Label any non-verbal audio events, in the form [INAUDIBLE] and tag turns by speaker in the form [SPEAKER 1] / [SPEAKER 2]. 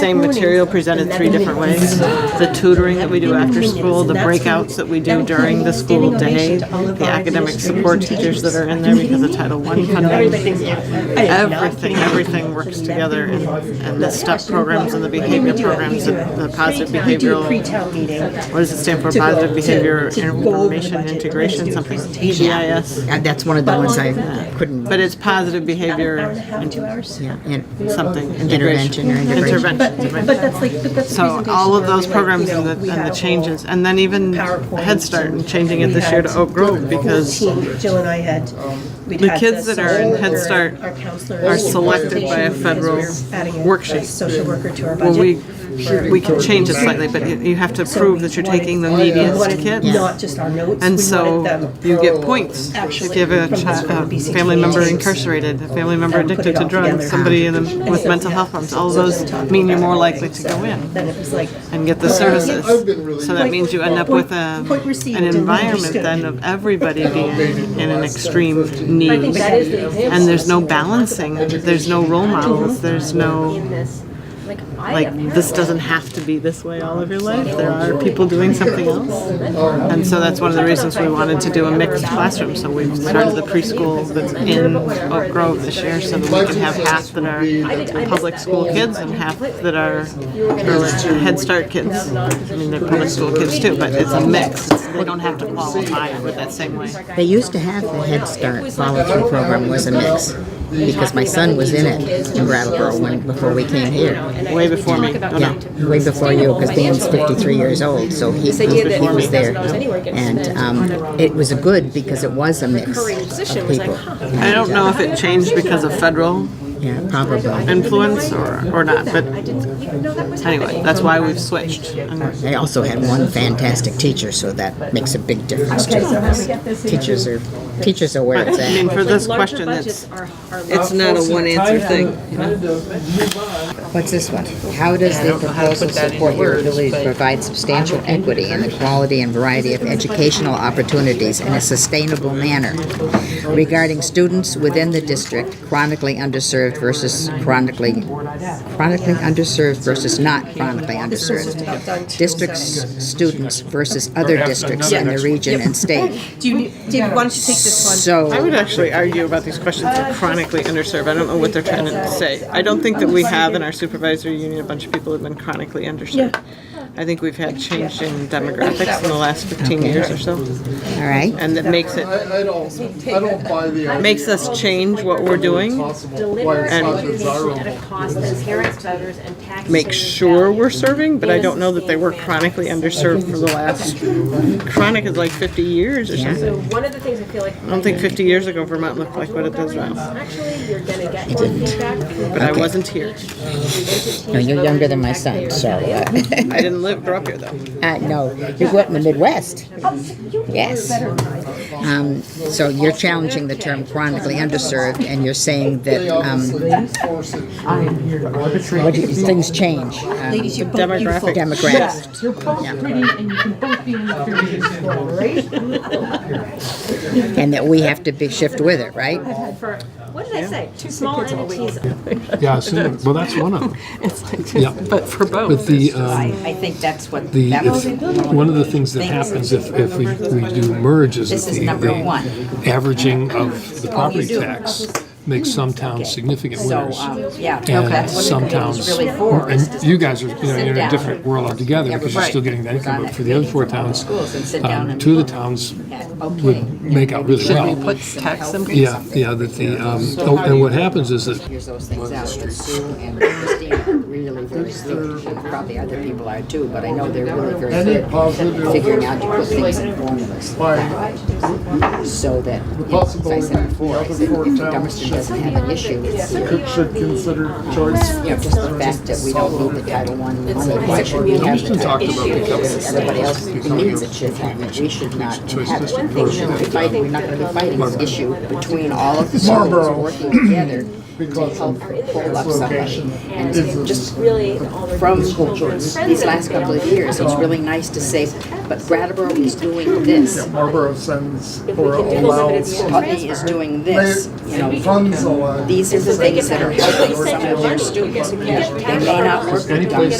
[SPEAKER 1] Same material presented three different ways. The tutoring that we do after school, the breakouts that we do during the school day, the academic support teachers that are in there because of Title I funding. Everything, everything works together and, and the STEP programs and the behavior programs and the positive
[SPEAKER 2] We do a
[SPEAKER 1] behavioral,
[SPEAKER 2] pre-town meeting.
[SPEAKER 1] what does it stand for? Positive Behavior Information Integration, something, PBIS.
[SPEAKER 3] Uh, That's one of the ones I uh, couldn't,
[SPEAKER 1] But it's positive
[SPEAKER 2] Hour and a
[SPEAKER 1] behavior
[SPEAKER 2] half, two hours.
[SPEAKER 3] yeah, and
[SPEAKER 1] something, integration.
[SPEAKER 3] Intervention or integration.
[SPEAKER 1] Interventions, right.
[SPEAKER 2] But that's like, but that's. the
[SPEAKER 1] So
[SPEAKER 2] presentation
[SPEAKER 1] all of
[SPEAKER 2] where
[SPEAKER 1] those
[SPEAKER 2] we, like,
[SPEAKER 1] programs
[SPEAKER 2] you know,
[SPEAKER 1] and
[SPEAKER 2] we
[SPEAKER 1] the,
[SPEAKER 2] had
[SPEAKER 1] and
[SPEAKER 2] a
[SPEAKER 1] the
[SPEAKER 2] whole
[SPEAKER 1] changes, and then even
[SPEAKER 2] PowerPoint
[SPEAKER 1] Head Start and changing it
[SPEAKER 2] we
[SPEAKER 1] this year to
[SPEAKER 2] had
[SPEAKER 1] Oak Grove
[SPEAKER 2] the whole
[SPEAKER 1] because
[SPEAKER 2] team. Jill and I had. we'd
[SPEAKER 1] The
[SPEAKER 2] had
[SPEAKER 1] kids that are in
[SPEAKER 2] social
[SPEAKER 1] Head
[SPEAKER 2] worker,
[SPEAKER 1] Start
[SPEAKER 2] our counselors
[SPEAKER 1] are selected by a
[SPEAKER 2] presentation,
[SPEAKER 1] federal
[SPEAKER 2] because we were adding a
[SPEAKER 1] worksheet.
[SPEAKER 2] Social worker to our
[SPEAKER 1] well,
[SPEAKER 2] budget.
[SPEAKER 1] we, we can change it slightly, but you- you have to prove that you're taking the neediest
[SPEAKER 2] Wanted Not
[SPEAKER 1] kids.
[SPEAKER 2] just our notes.
[SPEAKER 1] And
[SPEAKER 2] we
[SPEAKER 1] so
[SPEAKER 2] wanted them
[SPEAKER 1] you get points if
[SPEAKER 2] Actually,
[SPEAKER 1] you have a chi-
[SPEAKER 2] from the school,
[SPEAKER 1] a
[SPEAKER 2] BCTH.
[SPEAKER 1] family member incarcerated, a family member
[SPEAKER 2] And put
[SPEAKER 1] addicted
[SPEAKER 2] it
[SPEAKER 1] to
[SPEAKER 2] all
[SPEAKER 1] drugs,
[SPEAKER 2] together.
[SPEAKER 1] somebody in the- with
[SPEAKER 2] So,
[SPEAKER 1] mental
[SPEAKER 2] yeah,
[SPEAKER 1] health problems,
[SPEAKER 2] so
[SPEAKER 1] all
[SPEAKER 2] we're
[SPEAKER 1] those
[SPEAKER 2] just talking
[SPEAKER 1] mean you're
[SPEAKER 2] about
[SPEAKER 1] more
[SPEAKER 2] it.
[SPEAKER 1] likely to
[SPEAKER 2] So
[SPEAKER 1] go in
[SPEAKER 2] Then it was like.
[SPEAKER 1] and get the services. So that means you end up with a, an environment then of everybody being in an extreme
[SPEAKER 4] I think
[SPEAKER 1] need.
[SPEAKER 4] that is the example.
[SPEAKER 1] And there's no balancing, there's no role models, there's no,
[SPEAKER 4] In this, like, I
[SPEAKER 1] like,
[SPEAKER 4] apparently-
[SPEAKER 1] this doesn't have to be this way all of your life. There are people doing something else. And so that's one of the reasons we wanted to do a mixed classroom. So we've started the preschool that's in Oak Grove this year so that we can have half that are public school kids and half that are uh, Head Start kids. I mean, they're public school kids too, but it's a mix. It's- They don't have to qualify with that same way.
[SPEAKER 3] they used to have the Head Start volunteer program was a mix, because my son was in it in Brattleboro when, before we came here.
[SPEAKER 1] Way before me. Oh, no.
[SPEAKER 3] Yeah, way before you, because Dan's 53 years old, so he, he he was there. And um, it was good because it was a mix of people.
[SPEAKER 1] I don't know if it changed because of federal
[SPEAKER 3] Yeah, probably.
[SPEAKER 1] influence or, or not, but
[SPEAKER 4] Didn't even know that was
[SPEAKER 1] anyway,
[SPEAKER 4] happening.
[SPEAKER 1] that's why we've switched. And
[SPEAKER 3] I also had one fantastic teacher, so that makes a big difference too. Teachers are, teachers are where it's
[SPEAKER 1] I
[SPEAKER 3] at.
[SPEAKER 1] mean, for this
[SPEAKER 4] Larger
[SPEAKER 1] question,
[SPEAKER 4] budgets
[SPEAKER 1] it's,
[SPEAKER 4] are- are
[SPEAKER 1] it's not a one answer thing.
[SPEAKER 3] What's this one? How does the proposal support your ability to provide substantial equity in the quality and variety of educational opportunities in a sustainable manner regarding students within the district chronically underserved versus chronically chronically underserved versus not chronically underserved district students versus other districts in the region and state.
[SPEAKER 2] Do you, David, why don't you take this
[SPEAKER 1] I
[SPEAKER 2] one?
[SPEAKER 3] So
[SPEAKER 1] would actually argue about these questions are chronically underserved. I don't know what they're trying to say. I don't think that we have in our supervisory union a bunch of people who've been chronically underserved. I think we've had change in demographics in the last 15 years or so,
[SPEAKER 3] all right.
[SPEAKER 1] and that makes it
[SPEAKER 5] I, I don't, I don't buy the idea.
[SPEAKER 1] makes us change what we're doing,
[SPEAKER 5] Possible, why
[SPEAKER 4] Deliver
[SPEAKER 5] it's not
[SPEAKER 4] education at
[SPEAKER 5] desirable.
[SPEAKER 4] a cost that is parents, voters, and taxpayers.
[SPEAKER 1] make sure
[SPEAKER 4] value.
[SPEAKER 1] we're serving. But I don't know that they were chronically underserved for the last chronic is like 50 years or something.
[SPEAKER 4] So one of the things I feel like.
[SPEAKER 1] I don't think 50 years ago Vermont looked like what it does now,
[SPEAKER 4] Actually, you're gonna get more feedback.
[SPEAKER 1] but I wasn't here.
[SPEAKER 3] No, you're younger than my son, so uh, [LAUGHS]
[SPEAKER 1] I didn't live grow up here though.
[SPEAKER 3] Uh, no, you grew up in the Midwest. Yes. Um, so you're challenging the term chronically underserved, and you're saying that
[SPEAKER 5] They
[SPEAKER 3] um,
[SPEAKER 5] obviously force it.
[SPEAKER 3] what do you- things change. Um,
[SPEAKER 2] Ladies, you're both beautiful.
[SPEAKER 1] Demographic.
[SPEAKER 3] demographics.
[SPEAKER 6] You're both pretty and you can both be in the period school, right?
[SPEAKER 3] And that we have to be shift with it, right?
[SPEAKER 4] For, what did I say? Two small entities
[SPEAKER 7] Yeah, so, well, that's one
[SPEAKER 1] [LAUGHS]
[SPEAKER 7] of them. It's like, but for both. But the, um,
[SPEAKER 8] I think that's what,
[SPEAKER 7] the,
[SPEAKER 8] that was,
[SPEAKER 7] if, one of the things that happens if, if we, we do merge is
[SPEAKER 8] This
[SPEAKER 7] that
[SPEAKER 8] is
[SPEAKER 7] the,
[SPEAKER 8] number one.
[SPEAKER 7] the averaging of the property tax makes some towns significant
[SPEAKER 8] so,
[SPEAKER 7] winners.
[SPEAKER 8] um, yeah.
[SPEAKER 7] And
[SPEAKER 8] that's what
[SPEAKER 7] some
[SPEAKER 8] it was
[SPEAKER 7] towns,
[SPEAKER 8] Really for. is
[SPEAKER 7] and you guys are, you know,
[SPEAKER 8] Sit
[SPEAKER 7] you're in a
[SPEAKER 8] down.
[SPEAKER 7] different world altogether because you're
[SPEAKER 8] right.
[SPEAKER 7] still getting that income, but for the other four towns,
[SPEAKER 8] schools and sit down
[SPEAKER 7] um,
[SPEAKER 8] and.
[SPEAKER 7] two of the towns
[SPEAKER 8] Okay.
[SPEAKER 7] would make out really well. Should we put tax Yeah, yeah, that the, um, oh, and what happens is that
[SPEAKER 3] Here's those things out. that Sue and Christine are really very good. Probably other people are too, but I know they're really very
[SPEAKER 5] Any
[SPEAKER 3] good at
[SPEAKER 5] positive-
[SPEAKER 3] figuring out to put things in formulas that way. So that, you know, as I said before, I said if Dummerston doesn't have an issue, it's here.
[SPEAKER 5] Should consider choice.
[SPEAKER 3] you know, just the fact that we don't need the Title I money, why should we have the
[SPEAKER 5] Houston
[SPEAKER 3] Title
[SPEAKER 5] talked about becoming.
[SPEAKER 3] II? Everybody else needs it, should have it, we should not have it. We're not gonna be fighting, we're not gonna be fighting this issue between all of the schools working together
[SPEAKER 5] because of
[SPEAKER 3] pull up
[SPEAKER 5] its
[SPEAKER 3] somebody.
[SPEAKER 5] location.
[SPEAKER 3] And
[SPEAKER 5] It's a-
[SPEAKER 3] just
[SPEAKER 4] really all their
[SPEAKER 3] from
[SPEAKER 5] School choice.
[SPEAKER 3] these last couple of years, it's really nice to say, but Brattleboro is doing this,
[SPEAKER 5] Yeah, Marlboro sends
[SPEAKER 4] If we
[SPEAKER 5] or
[SPEAKER 4] could do this, but
[SPEAKER 5] allows.
[SPEAKER 4] it's-
[SPEAKER 3] Putney is doing this, you know.
[SPEAKER 5] Funds allow.
[SPEAKER 3] These are the things that are helping some of
[SPEAKER 4] Send
[SPEAKER 3] their
[SPEAKER 4] your money, you
[SPEAKER 3] students.
[SPEAKER 4] get- you get
[SPEAKER 3] They may not work with
[SPEAKER 5] Any place